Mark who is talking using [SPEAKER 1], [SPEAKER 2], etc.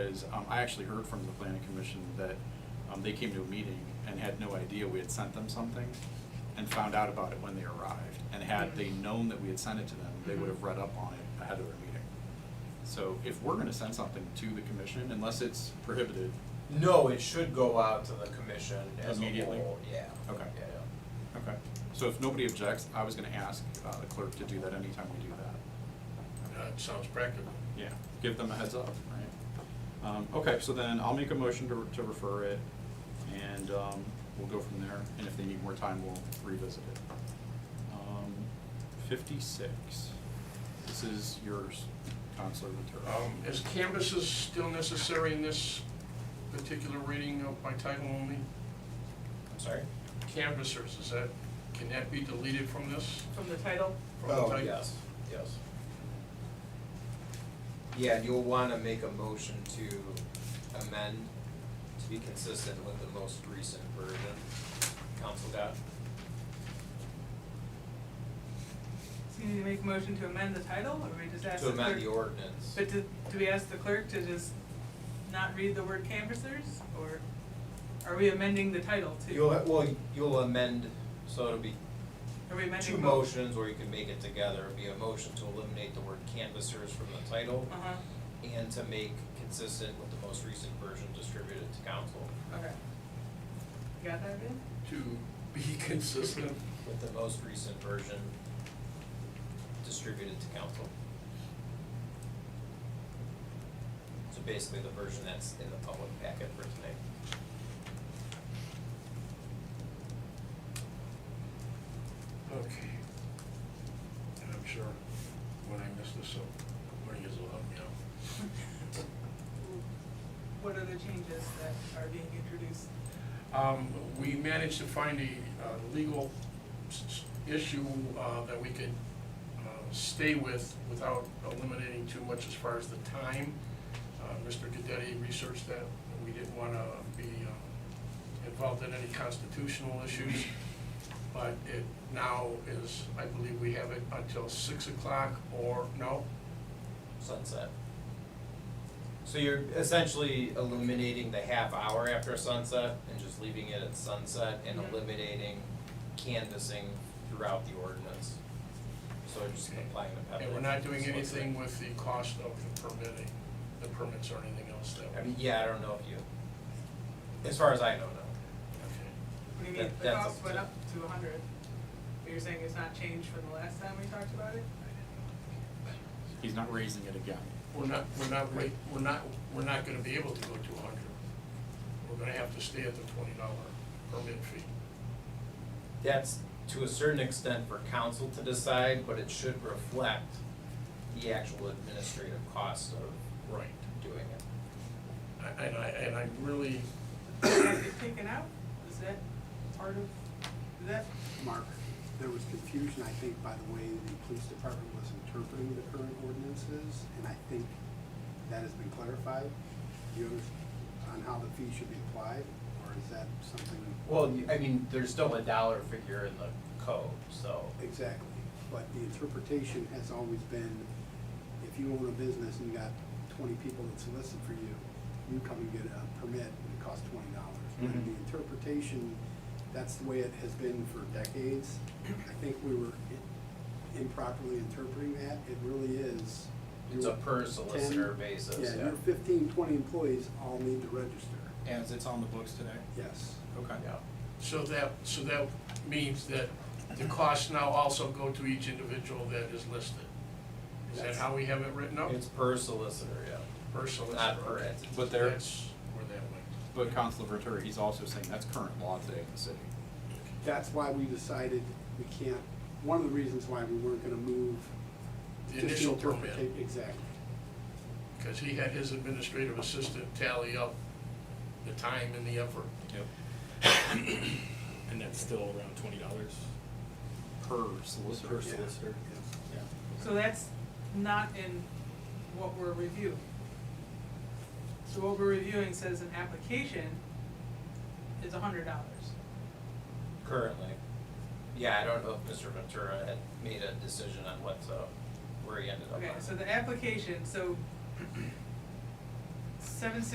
[SPEAKER 1] is, um, I actually heard from the planning commission that, um, they came to a meeting and had no idea we had sent them something and found out about it when they arrived. And had they
[SPEAKER 2] Mm-hmm.
[SPEAKER 1] known that we had sent it to them, they would have read up on it ahead of their meeting. So if we're gonna send something to the commission, unless it's prohibited,
[SPEAKER 2] No, it should go out to the commission as a
[SPEAKER 1] Immediately.
[SPEAKER 2] whole, yeah.
[SPEAKER 1] Okay.
[SPEAKER 2] Yeah, yeah.
[SPEAKER 1] okay. So if nobody objects, I was gonna ask, uh, the clerk to do that anytime we do that.
[SPEAKER 3] That Uh, sounds practical.
[SPEAKER 1] Yeah, give them a heads up, right? Um, okay, so then I'll make a motion to, to refer it, and, um, we'll go from there, and if they need more time, we'll revisit it. Um, fifty-six, this is yours, Counselor Ventura.
[SPEAKER 3] Um, Is canvasses still necessary in this particular reading of by title only?
[SPEAKER 2] I'm sorry?
[SPEAKER 3] Canvassers, is that, can that be deleted from this?
[SPEAKER 4] from the title.
[SPEAKER 3] From the
[SPEAKER 2] Oh,
[SPEAKER 3] title?
[SPEAKER 2] yes, yes. Yeah, and you'll wanna make a motion to amend to be consistent with the most recent version council got.
[SPEAKER 4] So you need to make a motion to amend the title, or we just ask
[SPEAKER 2] To
[SPEAKER 4] the clerk?
[SPEAKER 2] amend the ordinance.
[SPEAKER 4] But do, do we ask the clerk to just not read the word canvassers, or are we amending the title too?
[SPEAKER 2] You'll, well, you'll amend, so it'll be
[SPEAKER 4] Are we amending
[SPEAKER 2] two
[SPEAKER 4] both?
[SPEAKER 2] motions, or you can make it together, it'd be a motion to eliminate the word canvassers from the title
[SPEAKER 4] Uh-huh,
[SPEAKER 2] and to make consistent with the most recent version distributed to council.
[SPEAKER 4] okay. You Got that, Ben?
[SPEAKER 3] To be consistent.
[SPEAKER 2] with the most recent version distributed to council. So basically the version that's in the public packet for tonight.
[SPEAKER 3] Okay. And I'm sure when I miss this, i when he is allowed me out.
[SPEAKER 4] What are the changes that are being introduced?
[SPEAKER 3] Um, we managed to find a, uh, legal s- s- issue, uh, that we could, uh, stay with without eliminating too much as far as the time. Uh, Mr. Gaddetti researched that, and we didn't wanna be, um, involved in any constitutional issues. But it now is, I believe we have it until six o'clock or, no,
[SPEAKER 2] Sunset. So you're essentially eliminating the half hour after sunset and just leaving it at sunset and
[SPEAKER 4] Mhm.
[SPEAKER 2] eliminating canvassing throughout the ordinance. So just applying the pepper.
[SPEAKER 3] and we're not doing anything with the cost of the permitting, the permits or anything else that.
[SPEAKER 2] I mean, yeah, I don't know if you, as far as I know, no.
[SPEAKER 3] Okay.
[SPEAKER 4] What do you
[SPEAKER 2] That-
[SPEAKER 4] mean, the
[SPEAKER 2] that's
[SPEAKER 4] cost
[SPEAKER 2] up
[SPEAKER 4] went
[SPEAKER 2] to-
[SPEAKER 4] up to a hundred? But you're saying it's not changed from the last time we talked about it?
[SPEAKER 1] He's not raising it again.
[SPEAKER 3] we're not, we're not, rate- we're not, we're not gonna be able to go to hundred. We're gonna have to stay at the twenty dollar permit fee.
[SPEAKER 2] that's to a certain extent for council to decide, but it should reflect the actual administrative cost of
[SPEAKER 3] Right.
[SPEAKER 2] doing it.
[SPEAKER 3] And I, and I really,
[SPEAKER 4] Is it taken out? Is that part of, is that
[SPEAKER 5] Mark, there was confusion, I think, by the way the police department was interpreting the current ordinances, and I think that has been clarified. Do you understand on how the fee should be applied, or is that something
[SPEAKER 2] Well, I mean, there's still a dollar figure in the code, so.
[SPEAKER 5] exactly? But the interpretation has always been, if you own a business and you got twenty people that solicit for you, you come and get a permit and it costs twenty dollars.
[SPEAKER 2] Mhm.
[SPEAKER 5] And
[SPEAKER 3] Mm-hmm.
[SPEAKER 5] the interpretation, that's the way it has been for decades. I think we were i- improperly interpreting that. It really is.
[SPEAKER 2] It's a
[SPEAKER 5] your
[SPEAKER 2] per
[SPEAKER 5] 10
[SPEAKER 2] solicitor basis, yeah.
[SPEAKER 5] Yeah, your fifteen, twenty employees all need to register,
[SPEAKER 1] As it's on the books today?
[SPEAKER 5] yes.
[SPEAKER 1] Okay.
[SPEAKER 3] so that, so that means that the costs now also go to each individual that is listed. Is that how we have it written up?
[SPEAKER 2] It's per solicitor, yeah,
[SPEAKER 3] Per solicitor.
[SPEAKER 2] not per entity.
[SPEAKER 1] But there,
[SPEAKER 3] That's where that went.
[SPEAKER 1] but Counselor Ventura, he's also saying that's current law today in the city.
[SPEAKER 5] That's why we decided we can't, one of the reasons why we weren't gonna move.
[SPEAKER 3] The
[SPEAKER 5] just
[SPEAKER 3] initial permit.
[SPEAKER 5] interpreta- Exactly.
[SPEAKER 3] Cause he had his administrative assistant tally up the time and the effort.
[SPEAKER 1] Yep.
[SPEAKER 6] And that's still around twenty dollars
[SPEAKER 1] Per solicitor.
[SPEAKER 6] per
[SPEAKER 5] Yeah.
[SPEAKER 6] solicitor.
[SPEAKER 5] Yes.
[SPEAKER 4] So that's not in what we're reviewing. So what we're reviewing says an application is a hundred dollars.
[SPEAKER 2] Currently. Yeah, I don't know if Mr. Ventura had made a decision on what, to where he ended up on.
[SPEAKER 4] Okay, so the application, so seven